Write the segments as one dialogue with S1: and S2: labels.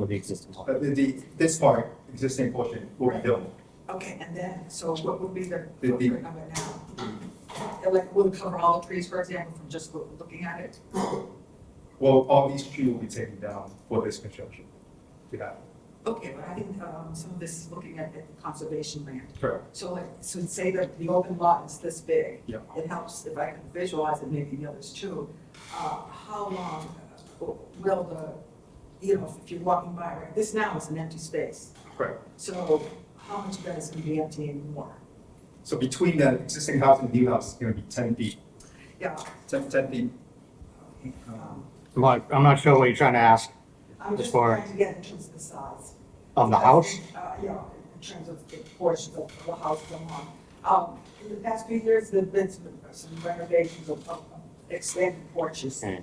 S1: with the existing one.
S2: But the- the, this part, existing portion, will be built.
S3: Okay, and then, so what would be the
S2: The- the-
S3: footprint of it now? And Like, will it cover all the trees, for example, from just loo- looking at it?
S2: Well, all these trees will be taken down for this construction. To that.
S3: Okay, but I think, um, some of this is looking at at the conservation land.
S2: Correct.
S3: So like, so say that the open lot is this big.
S2: Yeah.
S3: It helps if I can visualize it, maybe the others too. Uh, how long uh, will the, you know, if you're walking by, right, this now is an empty space.
S2: Correct.
S3: So how much of that is gonna be empty anymore?
S2: So between the existing house and the new house, it's gonna be ten feet,
S3: Yeah.
S2: ten, ten feet.
S3: um,
S1: I'm not, I'm not sure what you're trying to ask
S3: I'm
S1: As
S3: just
S1: far
S3: trying to get in terms of the size.
S1: of the house.
S3: Uh, yeah, in terms of the portions of the house going on. Um, in the past few years, there've been some, some renovations of, of expanded porches.
S1: Mm.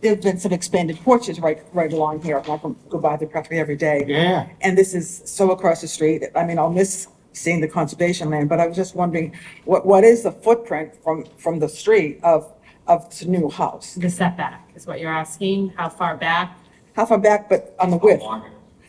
S3: There've been some expanded porches right, right along here. I can go by the property every day.
S1: Yeah.
S3: And this is so across the street. I mean, I'll miss seeing the conservation land, but I was just wondering, what, what is the footprint from, from the street of, of this new house?
S4: The setback is what you're asking, how far back?
S3: How far back, but on the width?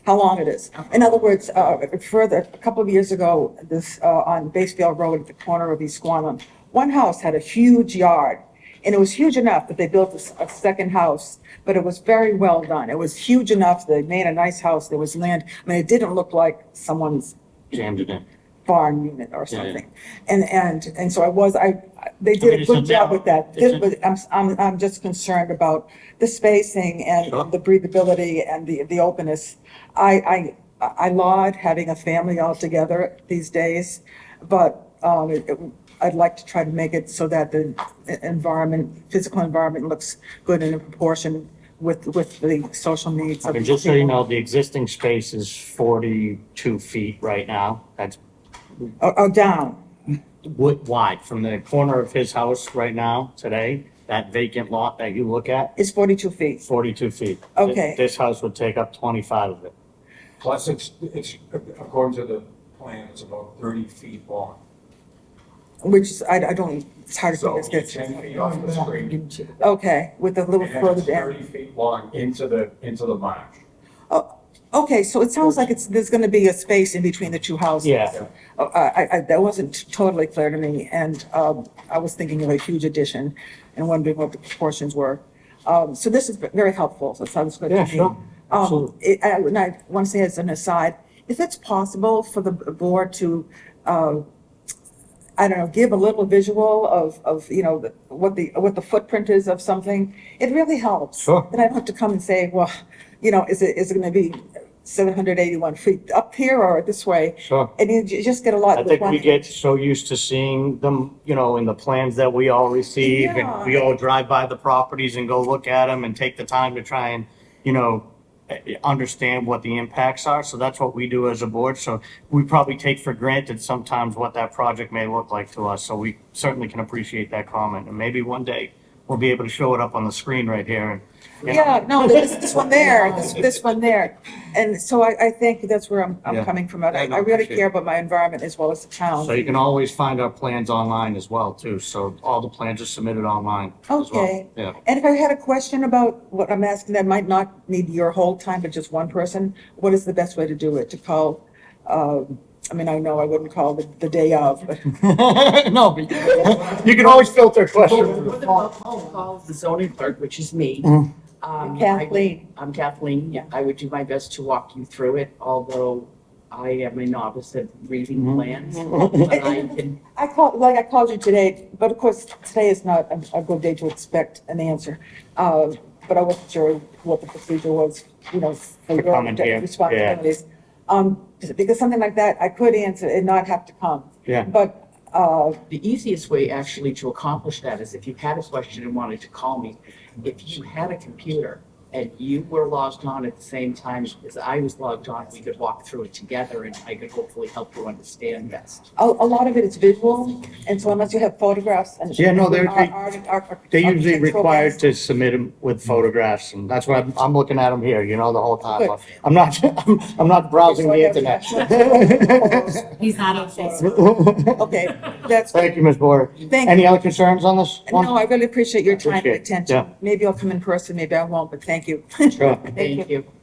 S3: how long it is. In other words, uh, further, a couple of years ago, this, uh, on Basefield Road at the corner of East Squanum, one house had a huge yard, and it was huge enough that they built a, s- a second house, but it was very well done. It was huge enough, they made a nice house, there was land, I mean, it didn't look like someone's
S1: Jammed it in.
S3: barn unit or
S1: Yeah, yeah.
S3: something. And, and, and so I was, I, I- they did a
S1: it's a
S3: good job with that.
S1: it's a-
S3: Did- but I'm, s- I'm, I'm just concerned about the spacing and
S1: Sure.
S3: the breathability and the, the openness. I, I, I laud having a family all together these days, but, um, it- it- I'd like to try to make it so that the e- environment, physical environment looks good and in proportion with, with the social needs of.
S1: And just so you
S3: people.
S1: know, the existing space is forty-two feet right now. That's
S3: Or, or Oh, down,
S1: wi- wide from the corner of his house right now, today, that vacant lot that you look at,
S3: is forty-two feet.
S1: forty-two feet.
S3: Okay.
S1: This house would take up twenty-five of it.
S5: Plus, it's, it's, according to the plan, it's about thirty feet long.
S3: Which is, I, I don't, it's hard
S5: So
S3: to
S5: it's
S3: figure
S5: ten feet off the street,
S3: Okay, with a little
S5: and
S3: further
S5: it's
S3: down.
S5: thirty feet long into the, into the marsh.
S3: Okay, so it sounds like it's, there's gonna be a space in between the two houses.
S1: Yeah.
S3: Uh, I, I, that wasn't totally clear to me, and, um, I was thinking of a huge addition and wondering what the proportions were. Um, so this is very helpful, so it sounds good to me.
S1: Yeah, sure.
S3: Um,
S1: Absolutely.
S3: it, I, and I want to say as an aside, if it's possible for the board to, uh, I don't know, give a little visual of, of, you know, the- what the, what the footprint is of something, it really helps.
S1: Sure.
S3: Then I don't have to come and say, well, you know, is it, is it gonna be seven hundred eighty-one feet up here or this way?
S1: Sure.
S3: And you ju- just get a lot
S1: I
S3: with
S1: think
S3: one
S1: we get so used to seeing them, you know, in the plans that we all receive and we all drive by the properties and go look at them and take the time to try and, you know, eh, eh, understand what the impacts are. So that's what we do as a board. So we probably take for granted sometimes what that project may look like to us. So we certainly can appreciate that comment. And maybe one day we'll be able to show it up on the screen right here and. you know.
S3: Yeah, no, this, this one there, this, this one there. And so I, I think that's where I'm, I'm
S1: Yeah.
S3: coming from. I,
S1: Yeah, no,
S3: I really
S1: appreciate
S3: care about my environment as well as the town.
S1: So you can always find our plans online as well too. So all the plans are submitted online as well.
S3: Okay.
S1: Yeah.
S3: And if I had a question about what I'm asking, that might not need your whole time, but just one person, what is the best way to do it? To call, um, I mean, I know I wouldn't call the, the day of, but
S1: no, but you can always filter a question.
S6: Or the phone calls the zoning clerk, which is me.
S1: Mm.
S3: Mm-hmm.
S6: Um, I-
S3: Kathleen.
S6: I'm Kathleen.
S3: Yeah.
S6: I would do my best to walk you through it, although I am a novice at reading
S3: Mm-hmm.
S6: plans. But I can,
S3: I called, like I called you today, but of course, today is not a, a good day to expect an answer. Uh, but I wasn't sure what the procedure was, you know, for
S1: For
S3: your
S1: comment here, yeah.
S3: responsibilities. Um, because something like that, I could answer and not have to come.
S1: Yeah.
S3: But, uh,
S6: the easiest way actually to accomplish that is if you had a question and wanted to call me, if you had a computer and you were logged on at the same time as I was logged on, we could walk through it together and I could hopefully help you understand best.
S3: a, a lot of it is visual, and so unless you have photographs and.
S1: Yeah, no, they're- they-
S3: Art- art-
S1: They're usually
S3: architectural
S1: required
S3: plans.
S1: to submit them with photographs, and that's why I'm, I'm looking at them here, you know, the whole time.
S3: Good.
S1: I'm not, I'm, I'm not browsing the internet.
S4: He's not on Facebook.
S3: Okay, that's,
S1: Thank you, Ms. Boyer.
S3: thank you.
S1: Any other concerns on this one?
S3: No, I really appreciate your time and
S1: Appreciate it, yeah.
S3: attention. Maybe I'll come in person, maybe I won't, but thank you.
S7: thank you.
S8: Sure.
S7: Thank you.
S3: Thank you.